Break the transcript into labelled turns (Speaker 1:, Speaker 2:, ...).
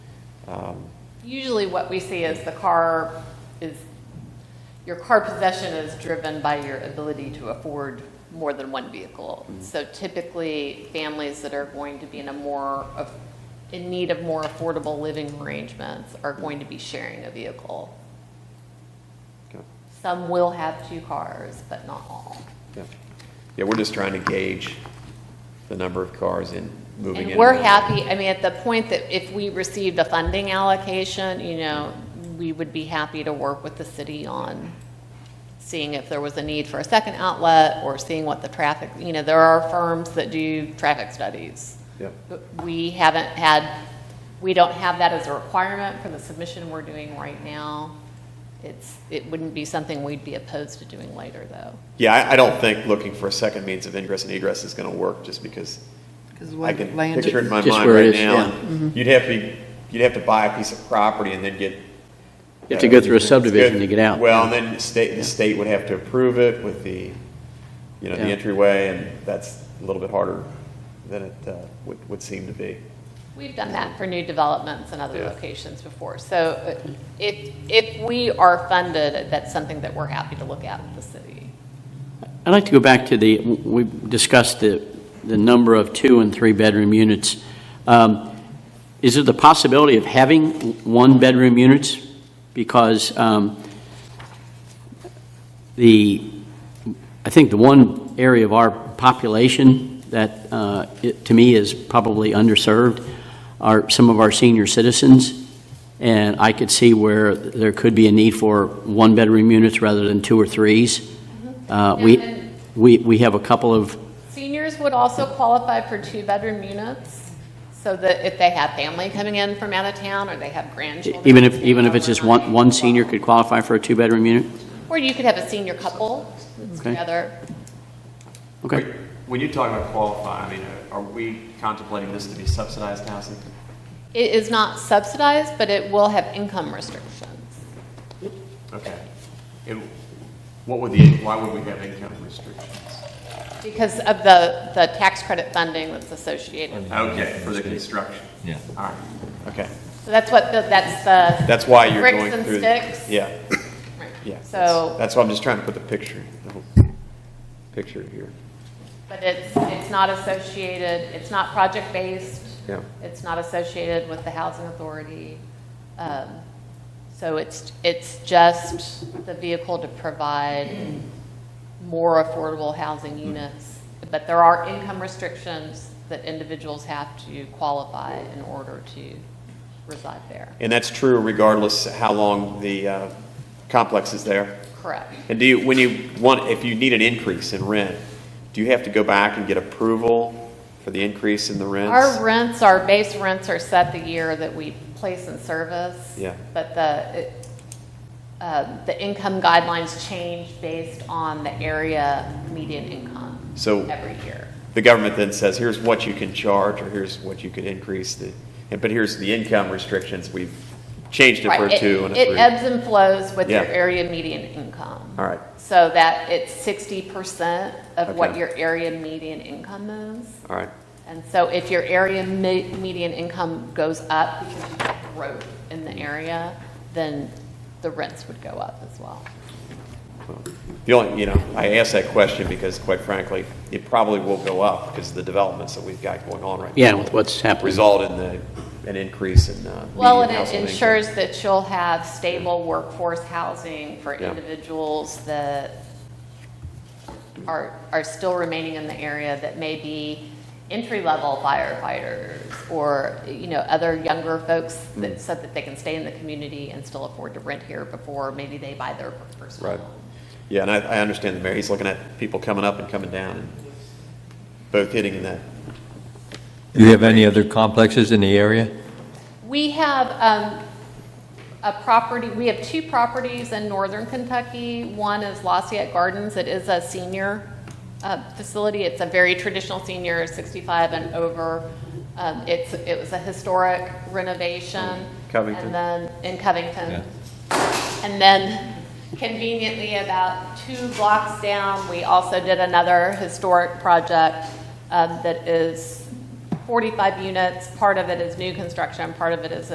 Speaker 1: Um,
Speaker 2: Usually what we see is the car is, your car possession is driven by your ability to afford more than one vehicle. So typically, families that are going to be in a more, of- in need of more affordable living arrangements are going to be sharing a vehicle.
Speaker 1: okay,
Speaker 2: Some will have two cars, but not all.
Speaker 1: yeah. Yeah, we're just trying to gauge the number of cars in, moving in.
Speaker 2: And we're
Speaker 1: out.
Speaker 2: happy, I mean, at the point that if we received a funding allocation, you know, we would be happy to work with the city on seeing if there was a need for a second outlet or seeing what the traffic, you know, there are firms that do traffic studies.
Speaker 1: Yeah,
Speaker 2: But We haven't had, we don't have that as a requirement for the submission we're doing right now. It's, it wouldn't be something we'd be opposed to doing later, though.
Speaker 1: yeah, I, I don't think looking for a second means of ingress and egress is gonna work, just because
Speaker 3: Because
Speaker 1: I
Speaker 3: what
Speaker 1: can
Speaker 3: land
Speaker 1: picture it in
Speaker 3: is, Mm-hmm.
Speaker 1: my
Speaker 4: Just
Speaker 1: mind
Speaker 4: where it
Speaker 1: right
Speaker 4: is,
Speaker 1: now.
Speaker 4: yeah.
Speaker 1: and You'd have to, be- you'd have to buy a piece of property and then get.
Speaker 4: You have to go through a subdivision
Speaker 1: Good.
Speaker 4: to get out.
Speaker 1: Well, and then the state, the state would have to approve it with the, you know, the
Speaker 4: Yeah.
Speaker 1: entryway, and that's a little bit harder than it uh, would, would seem to be.
Speaker 2: We've done that for new developments in other
Speaker 1: Yeah.
Speaker 2: locations before. So uh, if, if we are funded, that's something that we're happy to look at with the city.
Speaker 4: I'd like to go back to the, we discussed the, the number of two and three-bedroom units. Um, Is there the possibility of having one-bedroom units? Because um, the, I think the one area of our population that, uh, it- to me, is probably underserved are some of our senior citizens, and I could see where there could be a need for one-bedroom units rather than two or threes. Uh, We,
Speaker 2: And
Speaker 4: we we have a couple of,
Speaker 2: Seniors would also qualify for two-bedroom units, so that if they have family coming in from out of town, or they have grandchildren.
Speaker 4: even if,
Speaker 2: staying
Speaker 4: even if it's just one,
Speaker 2: overnight,
Speaker 4: one senior could qualify for a two-bedroom unit?
Speaker 2: Or you could have a senior couple that's
Speaker 4: Okay.
Speaker 2: together.
Speaker 4: Okay.
Speaker 1: When you talk about qualify, I mean, are we contemplating this to be subsidized housing?
Speaker 2: It is not subsidized, but it will have income restrictions.
Speaker 1: Okay. And what would the, why would we have income restrictions?
Speaker 2: Because of the, the tax credit funding that's associated.
Speaker 1: Okay, for the construction.
Speaker 5: Yeah.
Speaker 1: All right, okay.
Speaker 2: So that's what, the- that's the.
Speaker 1: That's why you're
Speaker 2: Bricks
Speaker 1: going
Speaker 2: and
Speaker 1: through.
Speaker 2: sticks.
Speaker 1: Yeah,
Speaker 2: Right.
Speaker 1: yeah. that's-
Speaker 2: So,
Speaker 1: That's why I'm just trying to put the picture, the whole picture here.
Speaker 2: but it's, it's not associated, it's not project-based.
Speaker 1: Yeah.
Speaker 2: It's not associated with the housing authority. Um, So it's, it's just the vehicle to provide more affordable housing
Speaker 1: Mm-hmm.
Speaker 2: units. But there are income restrictions that individuals have to qualify in order to reside there.
Speaker 1: And that's true regardless how long the uh, complex is there?
Speaker 2: Correct.
Speaker 1: And do you, when you want, if you need an increase in rent, do you have to go back and get approval for the increase in the rents?
Speaker 2: Our rents, our base rents are set the year that we place in service.
Speaker 1: Yeah.
Speaker 2: But the, it, uh, the income guidelines change based on the area median income.
Speaker 1: So-
Speaker 2: Every year.
Speaker 1: the government then says, here's what you can charge, or here's what you could increase the, and- but here's the income restrictions we've changed it
Speaker 2: Right.
Speaker 1: for a two and a
Speaker 2: It
Speaker 1: three.
Speaker 2: ebbs and flows with your
Speaker 1: Yeah.
Speaker 2: area median income.
Speaker 1: All right.
Speaker 2: So that it's sixty percent of what
Speaker 1: Okay.
Speaker 2: your area median income is.
Speaker 1: All right,
Speaker 2: And so if your area me- median income goes up because you have growth in the area, then the rents would go up as well.
Speaker 1: well, the only, you know, I ask that question because quite frankly, it probably will go up because of the developments that we've got going on right now.
Speaker 4: Yeah, with what's happening.
Speaker 1: Result in the, an increase in, uh,
Speaker 2: Well,
Speaker 1: median
Speaker 2: and it
Speaker 1: household income.
Speaker 2: ensures that you'll have stable workforce housing for
Speaker 1: Yeah.
Speaker 2: individuals that are, are still remaining in the area that may be entry-level firefighters or, you know, other younger folks
Speaker 1: Hmm.
Speaker 2: that, so that they can stay in the community and still afford to rent here before maybe they buy their first home.
Speaker 1: Right. Yeah, and I, I understand the mayor, he's looking at people coming up and coming down, and both hitting in that.
Speaker 5: Do you have any other complexes in the area?
Speaker 2: We have um, a property, we have two properties in northern Kentucky. One is Lafayette Gardens. It is a senior uh, facility. It's a very traditional senior, 65 and over. Um, It's, it was a historic renovation.
Speaker 1: Covington.
Speaker 2: And then, in Covington. And then conveniently, about two blocks down, we also did another historic project um, that is 45 units. Part of it is new construction, part of it is